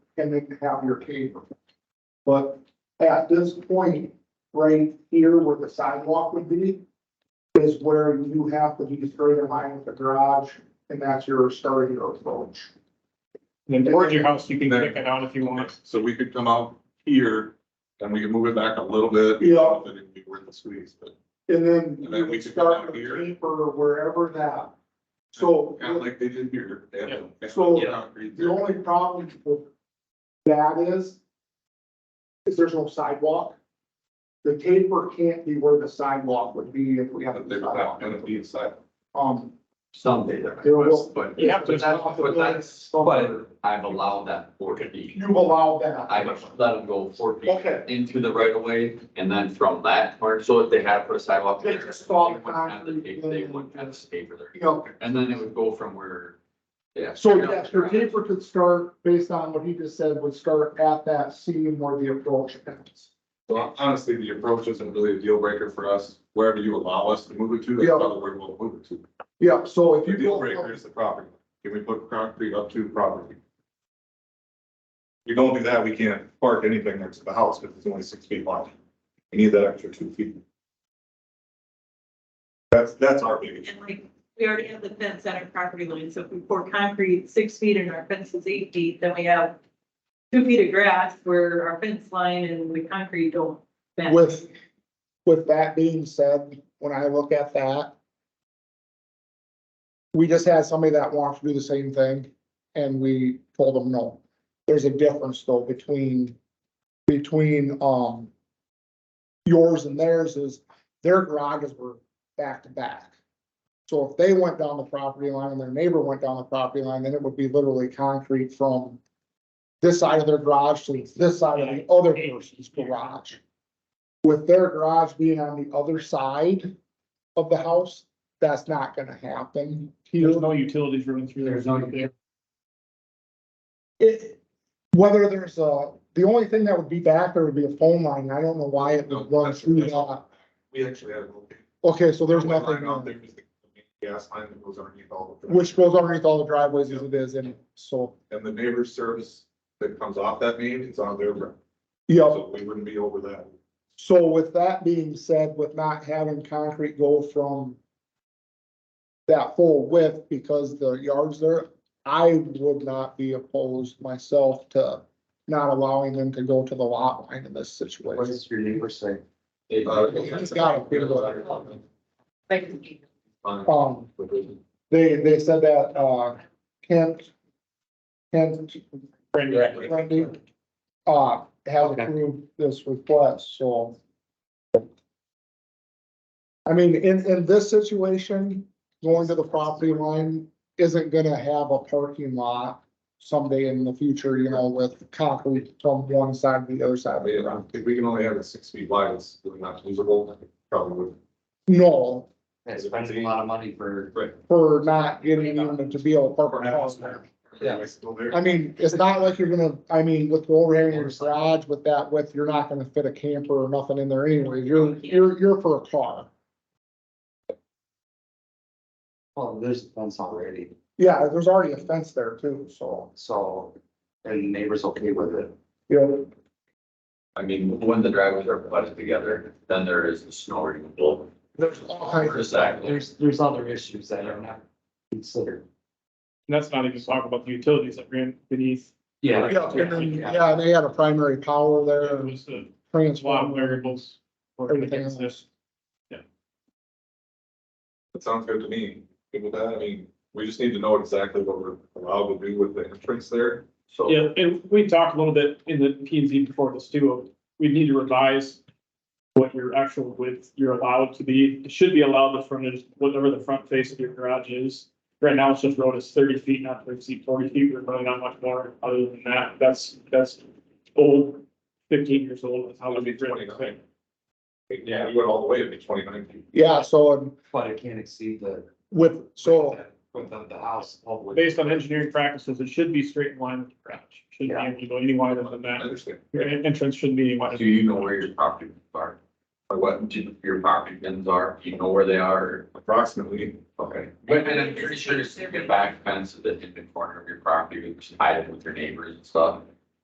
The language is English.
and then you have your paper. But at this point, right here where the sidewalk would be, is where you have to be straight in line with the garage, and that's your starting your approach. Then towards your house, you can pick it out if you want. So we could come out here and we can move it back a little bit. Yeah. But it'd be worth the squeeze, but And then And then we you could start come the out here. paper wherever that. So kind of like they did here. they had the- So- Yeah, concrete the there. only problem with that is, is there's no sidewalk. The paper can't be where the sidewalk would be if we have But a they were not gonna sidewalk. be inside. Um, someday there. There will- But, You have but to- that's, but that's, but I've allowed that four feet. you allow that. I've let them go four feet Okay. into the right of way and then from that part, so if they had to put a sidewalk They there. just fall they wouldn't have the concrete pa- They in. wouldn't have the paper there. You know, And then it would go from where, yeah. so yes, your paper could start, based on what he just said, would start at that seam where the approach ends. So honestly, the approach isn't really a deal breaker for us. Wherever you allow us to move it to, that's Yeah. probably where we'll move it to. Yeah, so if The you. deal go breaker is the property. Can we put concrete up to the property? You don't do that, we can't park anything next to the house because it's only six feet wide. We need that extra two feet. That's, that's our big issue. And like, we already have the fence at our property line, so if we pour concrete six feet and our fence is eight feet, then we have two feet of grass where our fence line and the concrete don't. match. With, with that being said, when I look at that. We just had somebody that wants to do the same thing and we told them no. There's a difference though between, between, um. Yours and theirs is their garages were back to back. So if they went down the property line and their neighbor went down the property line, then it would be literally concrete from. This side of their garage to this side of the other person's garage with their garage being on the other side of the house, that's not gonna happen. There's Here, no utilities running through there. There's no- it, whether there's a, the only thing that would be back there would be a phone line. I don't know why it would run through that. We actually have. a- Okay, so there's Line out nothing, there is the Gas line that goes underneath all of them. which goes underneath all the driveways as it is, and so, And the neighbor's service that comes off that main is on their, ground. yeah. so we wouldn't be over that. So with that being said, with not having concrete go from that full width because the yards there, I would not be opposed myself to not allowing them to go to the lot line in this situation. does your neighbor say? uh, He's got a big one. Like, you Um, they, they said that, uh, Kent, Kent Brand new. Randy, uh, has approved this request, so. I mean, in, in this situation, going to the property line isn't gonna have a parking lot someday in the future, you know, with concrete from one side to the other side I of the mean, I ground. think we can only have it six feet wide, it's really not usable, probably would. No, That's spending a lot of money for. for not getting them to be able to park Or their have house us there. there. Yeah. Am I still there? I mean, it's not like you're gonna, I mean, with the overhang in your garage, with that width, you're not gonna fit a camper or nothing in there anyway. You're, you're, you're for a car. Well, there's a fence already, Yeah, there's already a fence there too, so, so, and the neighbor's okay with it. you know, I mean, when the driveways are butted together, then there is the snow removal. there's all kinds of. Exactly. There's, there's other issues that are not considered. And that's not even talking about the utilities that ran beneath. Yeah, and then, yeah, they had a primary power there, There and was a lot of transformer. variables. Uh, working Everything against this. else. That sounds good to me. Good with that, I mean, we just need to know exactly what we're allowed to do with the entrance there. So. Yeah, and we talked a little bit in the P and Z before this too, we need to revise what your actual width you're allowed to be, it should be allowed the frontage, whatever the front face of your garage is. Right now, it's just road is thirty feet, not to exceed forty feet, we're really not much more other than that, that's, that's old, fifteen years old, that's how It'd it'd be be twenty-nine. written. Yeah, you went all the way, it'd be twenty-nine feet. Yeah, so and But it can't exceed the. with, so, With the, the house. public. Based on engineering practices, it should be straight in line with the garage, shouldn't be able to go any wider than I that, understand. your en- entrance shouldn't be any wider. Do you know where your property bins are? Or what do your property bins are? Do you know where they are? Approximately, Okay. But and I'm pretty sure it's your back fence at the, in the corner of your property, which is hiding with your neighbors and stuff.